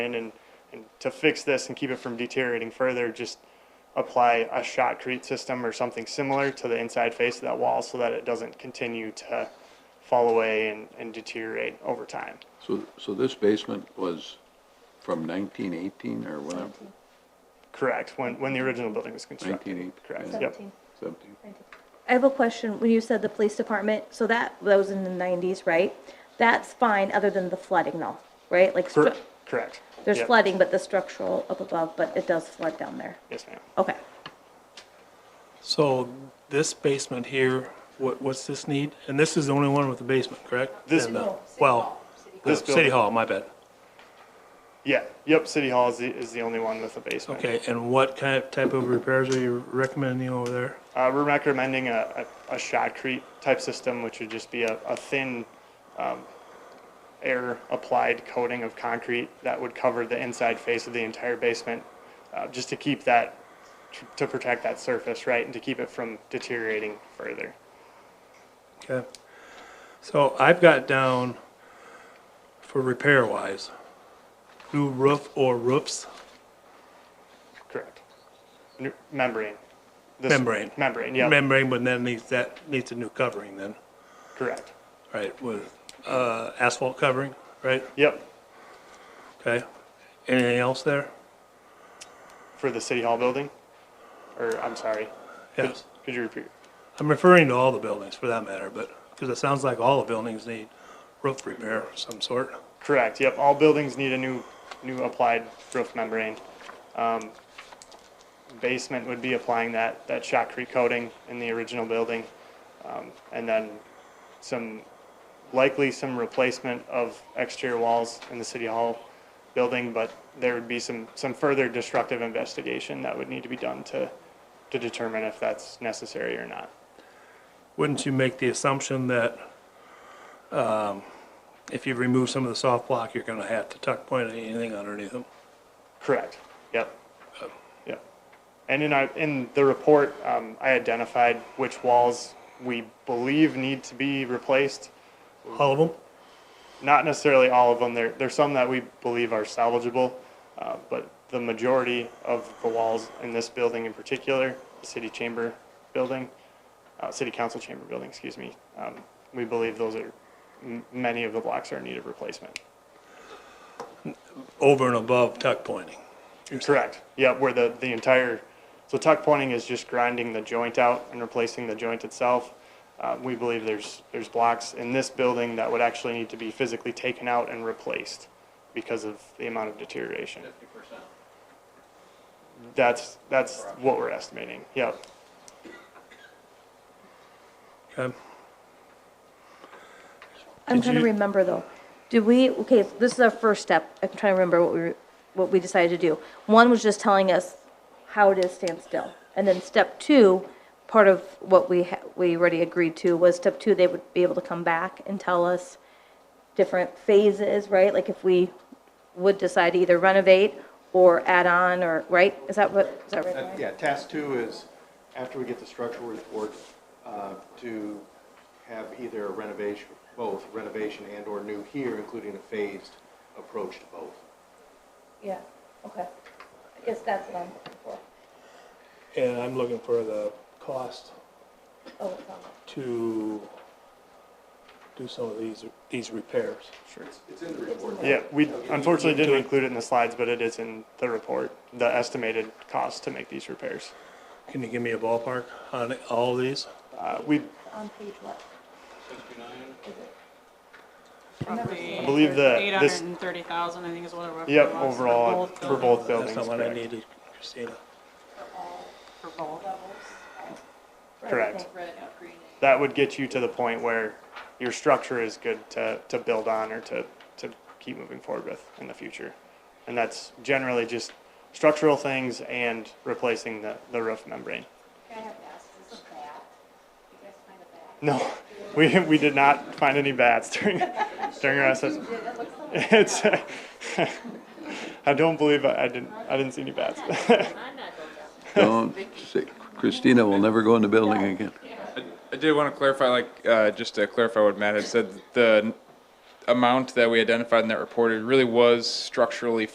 in and, and to fix this and keep it from deteriorating further, just apply a shotcrete system or something similar to the inside face of that wall so that it doesn't continue to fall away and, and deteriorate over time. So, so this basement was from nineteen eighteen or whatever, Correct, when, when the original building was constructed. nineteen eighteen? Correct, yep. Seventeen. Seventeen. I have a question. When you said the police department, so that, that was in the nineties, right? That's fine, other than the flooding though, right? Like, stru- Cor- Correct. there's Yep. flooding, but the structural up above, but it does flood down there. Yes, ma'am. Okay. So this basement here, what, what's this need? And this is the only one with the basement, correct? This- And, uh, Well, This uh, City building. Hall, my bad. Yeah, yep, City Hall is the, is the only one with a basement. Okay, and what kind of type of repairs are you recommending over there? Uh, we're recommending a, a, a shotcrete type system, which would just be a, a thin um, air applied coating of concrete that would cover the inside face of the entire basement, uh, just to keep that, to protect that surface, right, and to keep it from deteriorating further. Okay. So I've got down for repair wise, new roof or roofs. Correct. N- Membrane. This- Membrane. Membrane, yeah, Membrane, but then needs, that needs a new covering then, correct. right, with, uh, asphalt covering, right? Yep, Okay. Anything else there? for the City Hall building, or, I'm sorry, Yes. could you repeat? I'm referring to all the buildings for that matter, but, because it sounds like all the buildings need roof repair of some sort. Correct, yep, all buildings need a new, new applied roof membrane. Um, Basement would be applying that, that shotcrete coating in the original building. um, And then some, likely some replacement of exterior walls in the city hall building, but there would be some, some further destructive investigation that would need to be done to, to determine if that's necessary or not. Wouldn't you make the assumption that, um, if you remove some of the soft block, you're gonna have to tuck point anything underneath them? Correct, yep, yep. And in our, in the report, um, I identified which walls we believe need to be replaced. All of them? Not necessarily all of them, there, there's some that we believe are salvageable, uh, but the majority of the walls in this building in particular, the city chamber building, uh, city council chamber building, excuse me, um, we believe those are, m- many of the blocks are in need of replacement. Over and above tuck pointing? Correct. Yeah, where the, the entire, so tuck pointing is just grinding the joint out and replacing the joint itself. Uh, we believe there's, there's blocks in this building that would actually need to be physically taken out and replaced because of the amount of deterioration. Fifty percent. That's, that's what we're estimating. Yep. Okay. I'm Did trying to you- remember though. Did we, okay, this is our first step. I'm trying to remember what we, were- what we decided to do. One was just telling us how it is stand still. And then step two, part of what we, ha- we already agreed to was step two, they would be able to come back and tell us different phases, right? Like if we would decide to either renovate or add on or, right? Is that what, is that right? Uh, Ryan? Yeah, task two is, after we get the structural report, uh, to have either a renovation, both renovation and/or new here, including a phased approach to both. Yeah, okay. I guess that's what I'm looking for. And I'm looking for the cost Oh, it's on there. to do some of these, these repairs. Sure. It's in the report. Yeah, we unfortunately didn't include it in the slides, but it is in the report, the estimated cost to make these repairs. Can you give me a ballpark on all these? Uh, we, On page what? I believe that Eight this- hundred and thirty thousand, I think is what it was. yep, overall, both for both buildings, buildings, That's not what I correct. needed, Christina. For both. Correct. That would get you to the point where your structure is good to, to build on or to, to keep moving forward with in the future. And that's generally just structural things and replacing the, the roof membrane. I have to ask, is this a bat? You guys find a bat? No, we, we did not find any bats during, during our assessment. It looks like It's, I don't believe I, I didn't, I didn't see any bats. I'm not going down there. Don't say, Christina will never go in the building again. I did want to clarify, like, uh, just to clarify what Matt had said, the amount that we identified in that report, it really was structurally